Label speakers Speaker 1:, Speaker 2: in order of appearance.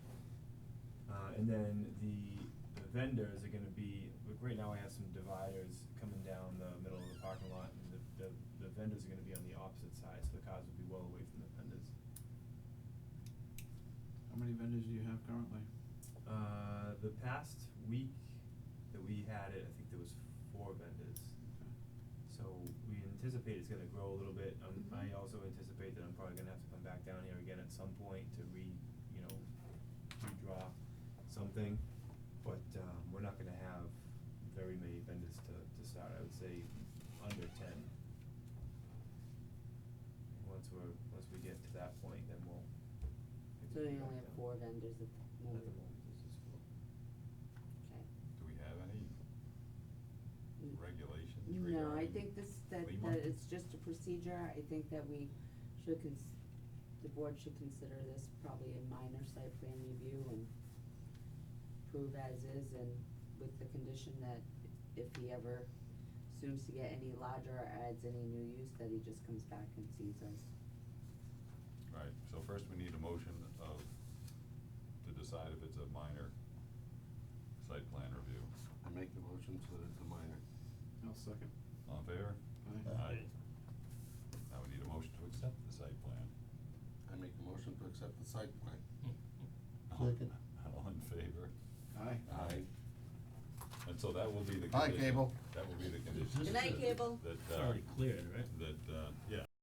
Speaker 1: Uh, and then the the vendors are gonna be, like, right now I have some dividers coming down the middle of the parking lot, and the, the, the vendors are gonna be on the opposite side, so the cars will be well away from the vendors.
Speaker 2: How many vendors do you have currently?
Speaker 1: Uh, the past week that we had it, I think there was four vendors. So we anticipate it's gonna grow a little bit, um, I
Speaker 3: Mhm.
Speaker 1: also anticipate that I'm probably gonna have to come back down here again at some point to re, you know, redraw something. But, um, we're not gonna have very many vendors to, to start, I would say under ten. And Once we're, once we get to that point, then we'll. I
Speaker 3: So
Speaker 1: can
Speaker 3: you
Speaker 1: come
Speaker 3: only
Speaker 1: back
Speaker 3: have
Speaker 1: down.
Speaker 3: four vendors at the
Speaker 1: At the
Speaker 3: moment?
Speaker 1: moment, this is four.
Speaker 3: Okay.
Speaker 4: Do we have any
Speaker 3: Mm.
Speaker 4: regulations regarding?
Speaker 3: No, I think this, that,
Speaker 4: Lima?
Speaker 3: that it's just a procedure, I think that we should cons- the board should consider this probably a minor site plan review and prove as is and with the condition that if he ever assumes to get any larger or adds any new use, that he just comes back and sees us.
Speaker 4: Right, so first we need a motion of, to decide if it's a minor site plan review.
Speaker 5: I make the motion so that it's a minor.
Speaker 2: I'll second.
Speaker 4: All in favor?
Speaker 2: Aye.
Speaker 4: Aye. Now we need a motion to accept the site plan.
Speaker 5: I make the motion to accept the site plan.
Speaker 4: All-
Speaker 5: Second.
Speaker 4: All in favor?
Speaker 5: Uh,
Speaker 2: Aye.
Speaker 4: Aye. And so that will be the
Speaker 5: Hi,
Speaker 4: condition.
Speaker 5: Cable.
Speaker 4: That will be the condition.
Speaker 3: Good night, Cable.
Speaker 4: That,
Speaker 6: It's
Speaker 4: uh,
Speaker 6: already cleared, right?
Speaker 4: that, uh, yeah,